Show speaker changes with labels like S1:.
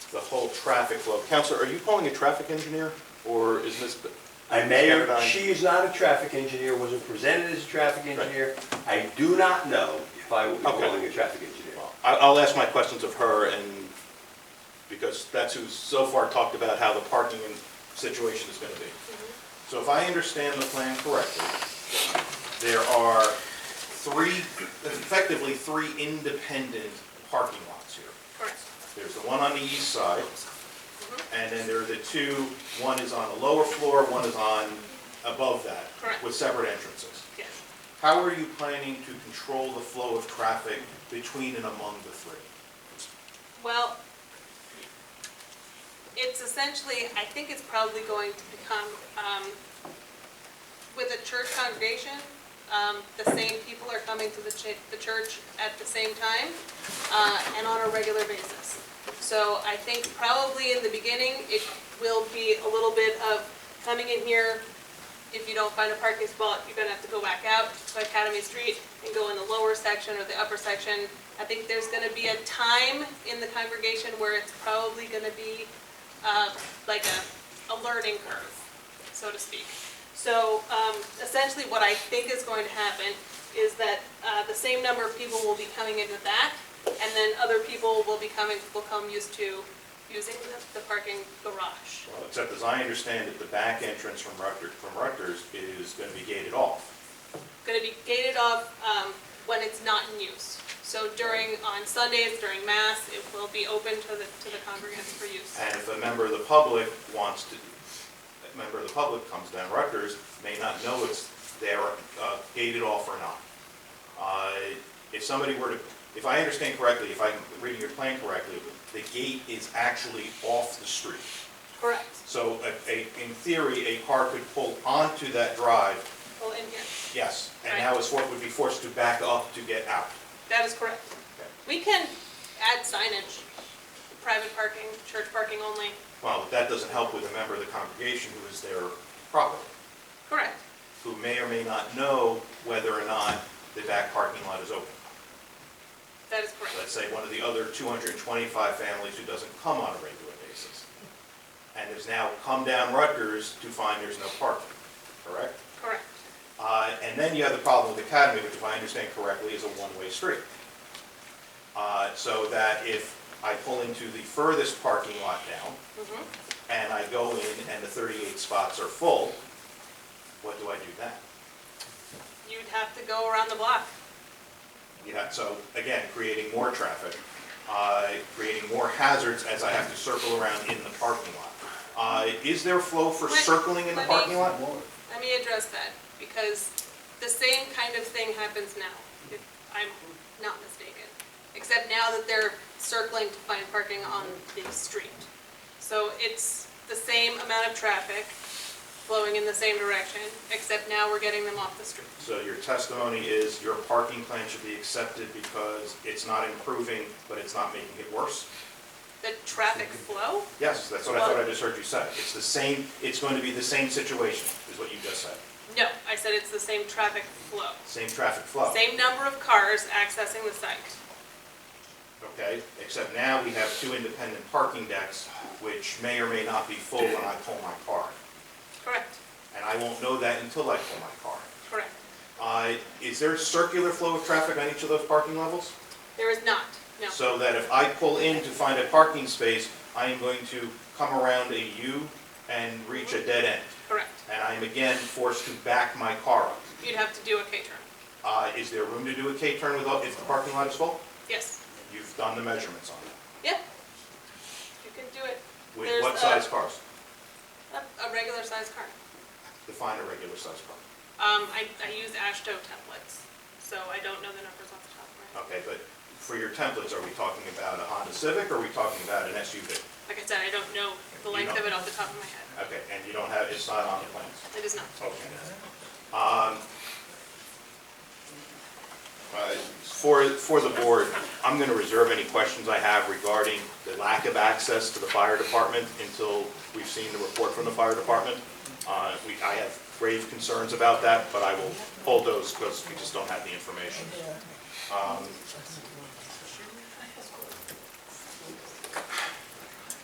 S1: traffic flow. Counselor, are you calling a traffic engineer, or is this,
S2: I mayor,
S1: Standby.
S2: she is not a traffic engineer, wasn't presented as a traffic engineer. I do not know if I will be
S1: Okay.
S2: calling a traffic engineer.
S1: I- I'll ask my questions of her, and, because that's who's so far talked about how the parking and situation is gonna be. So if I understand the plan correctly, there are three, effectively three independent parking lots here.
S3: Correct.
S1: There's the one on the east side, and then there are the two, one is on the lower floor, one is on above that.
S3: Correct.
S1: With separate entrances.
S3: Yes.
S1: How are you planning to control the flow of traffic between and among the three?
S3: Well, it's essentially, I think it's probably going to become, um, with a church congregation, um, the same people are coming to the ch- the church at the same time, uh, and on a regular basis. So I think probably in the beginning, it will be a little bit of coming in here, if you don't find a parking spot, you're gonna have to go back out to Academy Street and go in the lower section or the upper section. I think there's gonna be a time in the congregation where it's probably gonna be, uh, like a, a learning curve, so to speak. So, um, essentially what I think is going to happen is that, uh, the same number of people will be coming into that, and then other people will be coming, will come used to using the- the parking garage.
S1: Well, Except as I understand it, the back entrance from Rutgers, from Rutgers is going to be gated off.
S3: going to be gated off um, when it's not in use. So during, on Sundays, during Mass, it will be open to the, to the congregants for use.
S1: And if a member of the public wants to, a member of the public comes down Rutgers, may not know it's there uh, gated off or not. Uh, If somebody were to, if I understand correctly, if I'm reading your plan correctly, the gate is actually off the street.
S3: Correct.
S1: So a- a, in theory, a car could pull onto that drive
S3: Well, in here.
S1: Yes, and
S3: Right.
S1: now it's what would be forced to back up to get out.
S3: That is correct. We can add signage, private parking, church parking only.
S1: Well, but that doesn't help with a member of the congregation who is there properly,
S3: Correct.
S1: who may or may not know whether or not the back parking lot is open.
S3: That is correct.
S1: Let's say one of the other 225 families who doesn't come on a regular basis, and has now come down Rutgers to find there's no parking, correct?
S3: Correct.
S1: Uh, And then you have the problem with Academy, which if I understand correctly, is a one-way street. Uh, So that if I pull into the furthest parking lot down,
S3: Mhm.
S1: and I go in and the 38 spots are full, what do I do then?
S3: You'd have to go around the block.
S1: You know, so again, creating more traffic, uh, creating more hazards as I have to circle around in the parking lot. Uh, Is there flow for
S3: Let-
S1: circling in the
S3: let me-
S1: parking lot?
S3: Let me address that, because the same kind of thing happens now, if I'm not mistaken. Except now that they're circling to find parking on the street. So it's the same amount of traffic flowing in the same direction, except now we're getting them off the street.
S1: So your testimony is your parking plan should be accepted because it's not improving, but it's not making it worse?
S3: The traffic flow,
S1: Yes, that's what I thought I just heard you say. It's the same, it's going to be the same situation, is what you just said.
S3: no, I said it's the same traffic flow.
S1: Same traffic flow.
S3: Same number of cars accessing the site.
S1: Okay, except now we have two independent parking decks, which may or may not be full when I pull my car.
S3: Correct,
S1: And I won't know that until I pull my car.
S3: correct.
S1: Uh, Is there a circular flow of traffic on each of those parking levels?
S3: There is not, no.
S1: So that if I pull in to find a parking space, I am going to come around a U and reach a dead end.
S3: Correct.
S1: And I'm again forced to back my car up.
S3: You'd have to do a K-turn.
S1: Uh, Is there room to do a K-turn without, if the parking lot is full?
S3: Yes.
S1: You've done the measurements on that.
S3: Yeah, you can do it.
S1: With
S3: There's
S1: what
S3: a-
S1: size cars?
S3: A, a regular sized car.
S1: Define a regular size car.
S3: Um, I, I use ASHTO templates, so I don't know the numbers off the top of my head.
S1: Okay, but for your templates, are we talking about a Honda Civic or are we talking about an SUV?
S3: Like I said, I don't know the
S1: Oh. You
S3: length of
S1: don't-
S3: it off the top of my head.
S1: Okay, and you don't have, it's not on the plans?
S3: It is not.
S1: Okay. Um, uh, For, for the board, I'm going to reserve any questions I have regarding the lack of access to the fire department until we've seen the report from the fire department. Uh, we- I have grave concerns about that, but I will hold those because we just don't have the information. Um,